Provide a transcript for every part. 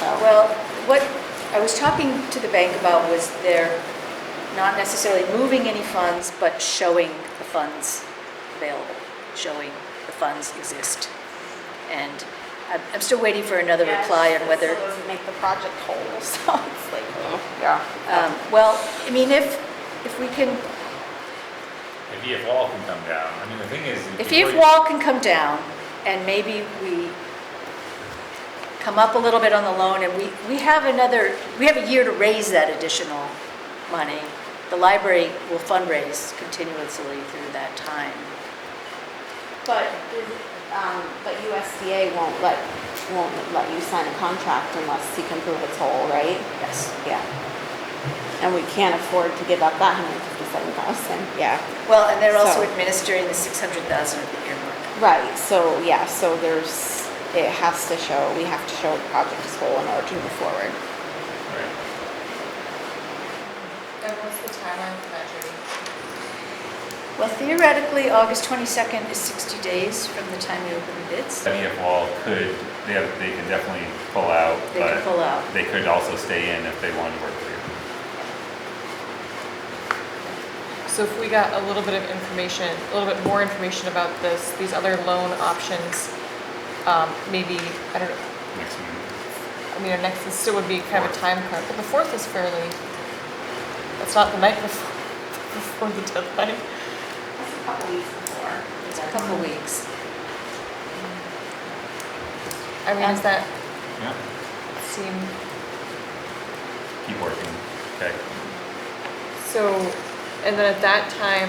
so. Well, what I was talking to the bank about was they're not necessarily moving any funds, but showing the funds available, showing the funds exist. And I'm- I'm still waiting for another Yeah, reply on it whether, still doesn't make the project whole, so it's like, oh, yeah. um, well, I mean, if, if we can, If EF wall can come down, I mean, the thing is. if before Eve you- Wall can come down, and maybe we come up a little bit on the loan, and we, we have another, we have a year to raise that additional money. The library will fundraise continuously through that time. But, um, but USDA won't let, won't let you sign a contract unless you can prove it's whole, right? Yes. Yeah. And we can't afford to give up that hundred fifty-seven thousand, yeah. Well, and they're also So- administering the 600,000 of the earmark. Right, so, yeah, so there's, it has to show, we have to show the project is whole in order to move forward. Right. And what's the timeline for that, Judy? Well, theoretically, August 22nd is 60 days from the time you open the bids. That EF E wall could, they have, they can definitely pull out, They can but pull out. they could also stay in if they wanted to work for you. So if we got a little bit of information, a little bit more information about this, these other loan options, um, maybe, I don't know, Next meeting. I mean, our next, this still would be kind of a time crunch, but the fourth is fairly, that's not the night before, before the deadline. That's a couple weeks before. It's a couple weeks. I mean, does that Yeah, seem, keep working, okay. so, and then at that time,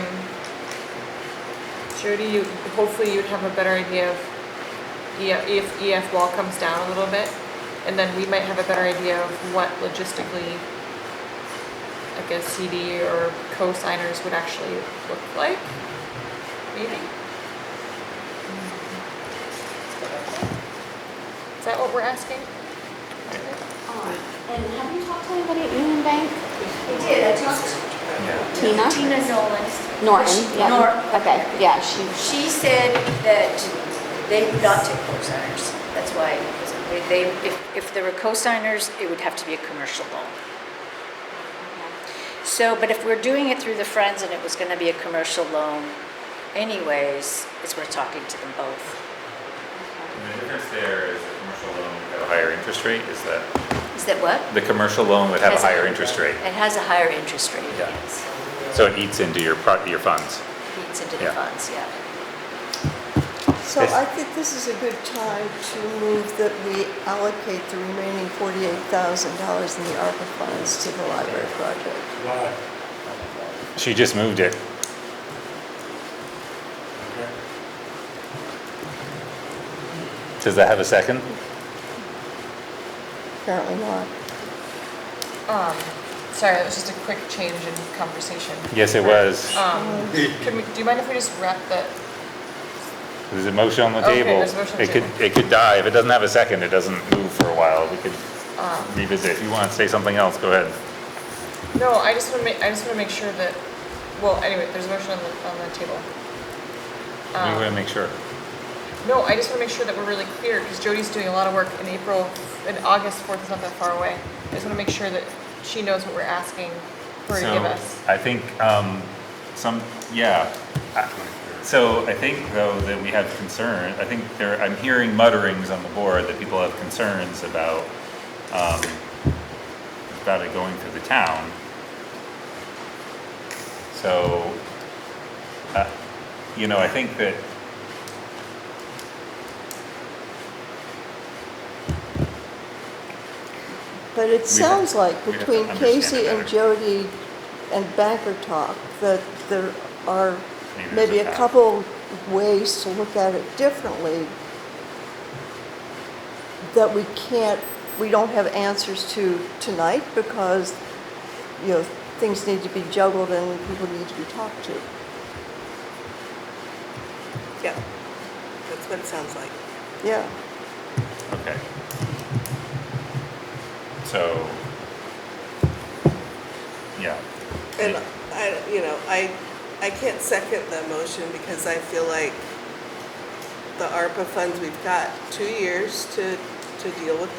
Jody, you, hopefully you'd have a better idea of EF, if EF wall comes down a little bit, and then we might have a better idea of what logistically, like a CD or co-signers would actually look like, maybe? Is that what we're asking? Um, And have you talked to anybody at Union Bank? They did, I talked Yeah. Tina? Tina Nolan. Norton, yeah. Nor, Okay, yeah, she, she said that they would not take co-signers. That's why, they- they, if, if there were co-signers, it would have to be a commercial loan. So, but if we're doing it through the Friends and it was gonna be a commercial loan anyways, it's worth talking to them both. The difference there is the commercial loan would have a higher interest rate, is that, Is that what? the commercial loan would have a Has- higher interest rate. It has a higher interest rate, Yeah. yes. So it eats into your, pro- your funds. Feeds into the Yeah. funds, yeah. So Yes. I think this is a good time to move that we allocate the remaining forty-eight thousand dollars in the ARPA funds to the library project. Why? She just moved it. Does that have a second? Apparently not. Um, sorry, that was just a quick change in conversation. Yes, it was. Um, can we, do you mind if we just wrap the, There's a motion on the Okay, table. there's a motion on It the could, table. it could die. If it doesn't have a second, it doesn't move for a while. We could Um, revisit. If you want to say something else, go ahead. no, I just wanna make, I just wanna make sure that, well, anyway, there's a motion on the, on the table. We Um, want to make sure. No, I just wanna make sure that we're really clear, because Jody's doing a lot of work in April, and August fourth is not that far away. I just wanna make sure that she knows what we're asking her to So, give us. I think, um, some, yeah. I- So I think though that we have concern, I think there, I'm hearing mutterings on the board that people have concerns about, um, about it going through the town. So, uh, you know, I think that But it We have- sounds like we have to between understand Casey it and better. Jody and Banker Talk, that there are Maybe there's maybe a a path. couple ways to look at it differently that we can't, we don't have answers to tonight because, you know, things need to be juggled and people need to be talked to. Yeah, that's what it sounds like. Yeah. Okay. So, yeah. And I, you know, I, I can't second the motion because I feel like the ARPA funds, we've got two years to, to deal with